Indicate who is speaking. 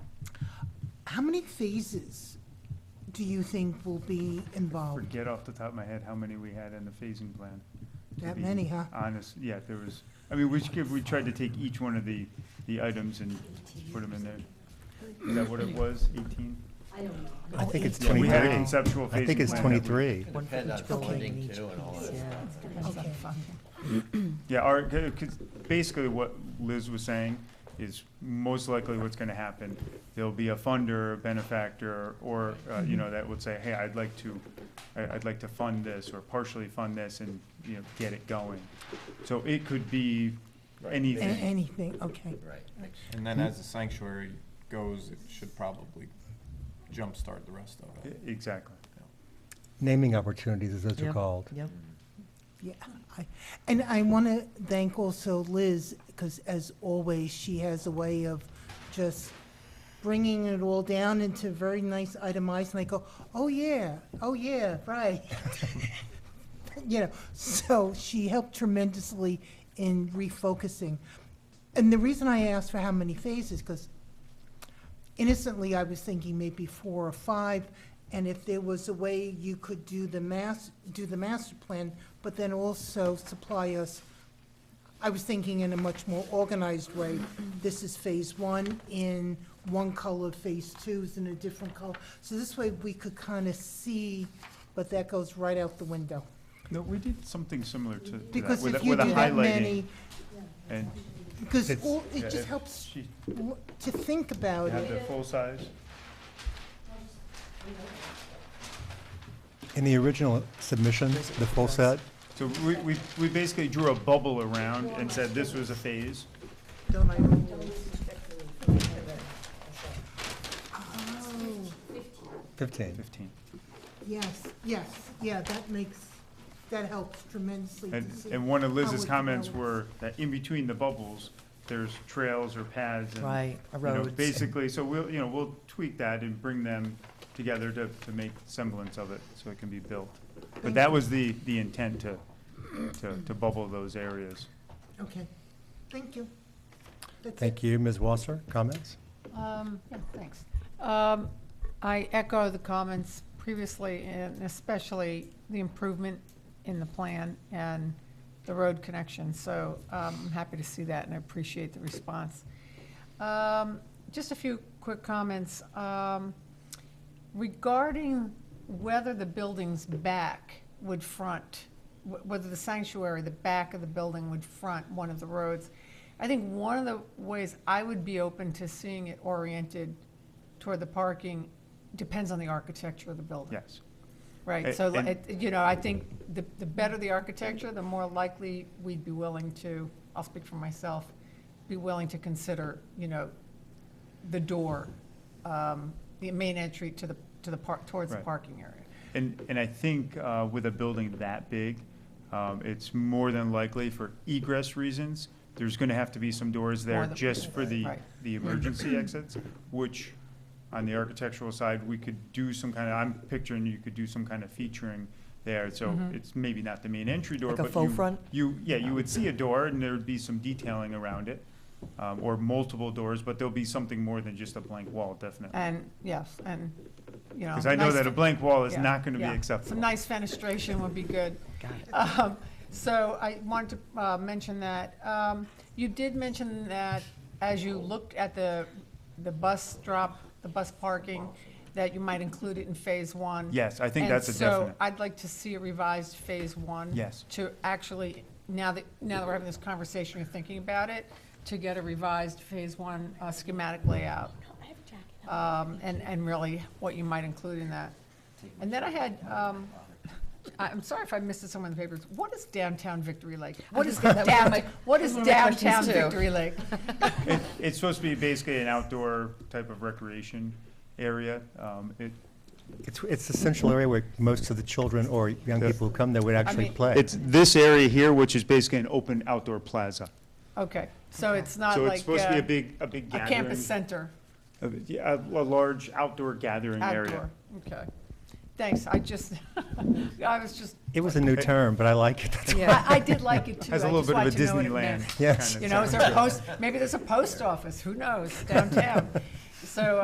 Speaker 1: How many phases do you think will be involved?
Speaker 2: Forget off the top of my head how many we had in the phasing plan. to
Speaker 1: That
Speaker 2: be
Speaker 1: many, huh?
Speaker 2: Honest, yeah, there was, I mean, we should, we tried to take each one of the, the items and put them in there. Is that what it was, eighteen?
Speaker 3: I don't know.
Speaker 4: I
Speaker 1: Oh,
Speaker 4: think it's
Speaker 2: Yeah, We had a
Speaker 4: 23.
Speaker 2: conceptual phasing plan.
Speaker 4: I think it's
Speaker 2: that we-
Speaker 4: 23.
Speaker 5: Could depend on
Speaker 1: Okay.
Speaker 5: funding too and all that.
Speaker 6: Yeah.
Speaker 1: Okay.
Speaker 2: Yeah, our, 'cause basically what Liz was saying is most likely what's gonna happen. There'll be a funder, a benefactor, or, uh,
Speaker 1: Mm-hmm.
Speaker 2: you know, that would say, hey, I'd like to, I, I'd like to fund this or partially fund this and, you know, get it going. So it could be
Speaker 5: Right.
Speaker 1: A-
Speaker 2: anything.
Speaker 1: Anything, okay.
Speaker 5: Right, makes
Speaker 7: And then as the sanctuary goes, it should probably jumpstart the rest of
Speaker 2: E-
Speaker 7: it.
Speaker 2: Exactly.
Speaker 4: Naming opportunities, as those are
Speaker 6: Yeah.
Speaker 4: called.
Speaker 6: Yep.
Speaker 1: Yeah, I, and I want to thank also Liz, because as always, she has a way of just bringing it all down into very nice itemized, and I go, oh, yeah, oh, yeah, right. You know, so she helped tremendously in refocusing. And the reason I asked for how many phases, because innocently, I was thinking maybe four or five, and if there was a way you could do the mass, do the master plan, but then also supply us, I was thinking in a much more organized way, this is phase one in one color, phase two is in a different color. So this way, we could kind of see, but that goes right out the window.
Speaker 2: No, we did something similar to to that.
Speaker 1: Because
Speaker 2: with
Speaker 1: if
Speaker 2: a-
Speaker 1: you
Speaker 2: with a
Speaker 1: do that
Speaker 2: highlighting
Speaker 1: many,
Speaker 2: And
Speaker 1: because
Speaker 4: It's-
Speaker 1: all-
Speaker 2: yeah,
Speaker 1: it just
Speaker 2: it-
Speaker 1: helps
Speaker 2: she
Speaker 1: w- to think about
Speaker 2: had
Speaker 1: it.
Speaker 2: the full size.
Speaker 4: In the original submission, the full set,
Speaker 2: So we, we, we basically drew a bubble around and said this was a phase.
Speaker 1: Don't I always-
Speaker 4: 15.
Speaker 2: Fifteen.
Speaker 1: Yes, yes, yeah, that makes, that helps tremendously to
Speaker 2: And,
Speaker 1: see.
Speaker 2: and one of
Speaker 1: how
Speaker 2: Liz's
Speaker 1: it
Speaker 2: comments were
Speaker 1: develops.
Speaker 2: that in between the bubbles, there's trails or paths and.
Speaker 6: Right, a
Speaker 2: you know,
Speaker 6: roads.
Speaker 2: Basically, so we'll, you know, we'll tweak that and bring them together to, to make semblance of it, so it can be built. But
Speaker 1: Thank
Speaker 2: that
Speaker 1: you.
Speaker 2: was the, the intent to, to, to bubble those areas.
Speaker 1: Okay, thank you. That's it.
Speaker 4: Thank you. Ms. Wasser, comments?
Speaker 8: Um, yeah, thanks. Um, I echo the comments previously, and especially the improvement in the plan and the road connection, so um, I'm happy to see that, and I appreciate the response. Um, Just a few quick comments. Um, Regarding whether the building's back would front, wh- whether the sanctuary, the back of the building would front one of the roads, I think one of the ways I would be open to seeing it oriented toward the parking depends on the architecture of the building.
Speaker 2: Yes,
Speaker 8: Right,
Speaker 2: A-
Speaker 8: so,
Speaker 2: and-
Speaker 8: it- you know, I think the, the better the architecture, the more likely we'd be willing to, I'll speak for myself, be willing to consider, you know, the door, um, the main entry to the, to the park, towards the
Speaker 2: Right.
Speaker 8: parking area.
Speaker 2: and, and I think, uh, with a building that big, um, it's more than likely for egress reasons, there's gonna have to be some doors there
Speaker 8: More than-
Speaker 2: just for the,
Speaker 8: Right.
Speaker 2: the emergency exits, which, on the architectural side, we could do some kind of, I'm picturing you could do some kind of featuring there, so
Speaker 8: Mm-hmm.
Speaker 2: it's maybe not the main entry door,
Speaker 6: Like a
Speaker 2: but
Speaker 6: faux
Speaker 2: you-
Speaker 6: front?
Speaker 2: You, yeah, you would see a door, and there'd be some detailing around it, um, or multiple doors, but there'll be something more than just a blank wall, definitely.
Speaker 8: And, yes, and, you know.
Speaker 2: Because I know
Speaker 8: Uh, nice
Speaker 2: that a
Speaker 8: fe-
Speaker 2: blank wall is
Speaker 8: yeah,
Speaker 2: not gonna be
Speaker 8: yeah.
Speaker 2: acceptable.
Speaker 8: Some nice fenestration would be good. Um, So I wanted to uh, mention that. Um, You did mention that as you looked at the, the bus drop, the bus parking, that you might include it in phase one.
Speaker 2: Yes, I think
Speaker 8: And
Speaker 2: that's a
Speaker 8: so
Speaker 2: definite.
Speaker 8: I'd like to see a revised phase one.
Speaker 2: Yes.
Speaker 8: To actually, now that, now that we're having this conversation, you're thinking about it, to get a revised phase one uh, schematic layout um, and, and really what you might include in that. And then I had, um, I- I'm sorry if I missed this somewhere in the papers, what is downtown Victory Lake? What is
Speaker 6: just got that one of
Speaker 8: downtown,
Speaker 6: my-
Speaker 8: what
Speaker 6: that
Speaker 8: is
Speaker 6: was one of my questions
Speaker 8: downtown
Speaker 6: too.
Speaker 8: Victory Lake?
Speaker 2: It, it's supposed to be basically an outdoor type of recreation area. Um, it,
Speaker 4: It's, it's the central area where most of the children or young
Speaker 2: Yeah.
Speaker 4: people who come there would actually
Speaker 8: mean-
Speaker 4: play.
Speaker 2: it's this area here, which is basically an open outdoor plaza.
Speaker 8: Okay, so it's not
Speaker 2: So
Speaker 8: like.
Speaker 2: it's supposed to be
Speaker 8: uh,
Speaker 2: a big, a big
Speaker 8: A
Speaker 2: gathering.
Speaker 8: campus center,
Speaker 2: of it. Yeah, a, a large outdoor gathering area.
Speaker 8: outdoor, okay. Thanks, I just, I was just,
Speaker 4: It was a new term, but I like it. That's-
Speaker 8: I, I did like it too.
Speaker 2: Has a
Speaker 8: I
Speaker 2: little
Speaker 8: just
Speaker 2: bit of a
Speaker 8: wanted to know what it meant.
Speaker 2: Disneyland.
Speaker 4: Yes.
Speaker 2: kind of
Speaker 8: You know, is
Speaker 2: sound
Speaker 8: there a
Speaker 2: to it.
Speaker 8: post, maybe there's a post office, who knows, downtown. So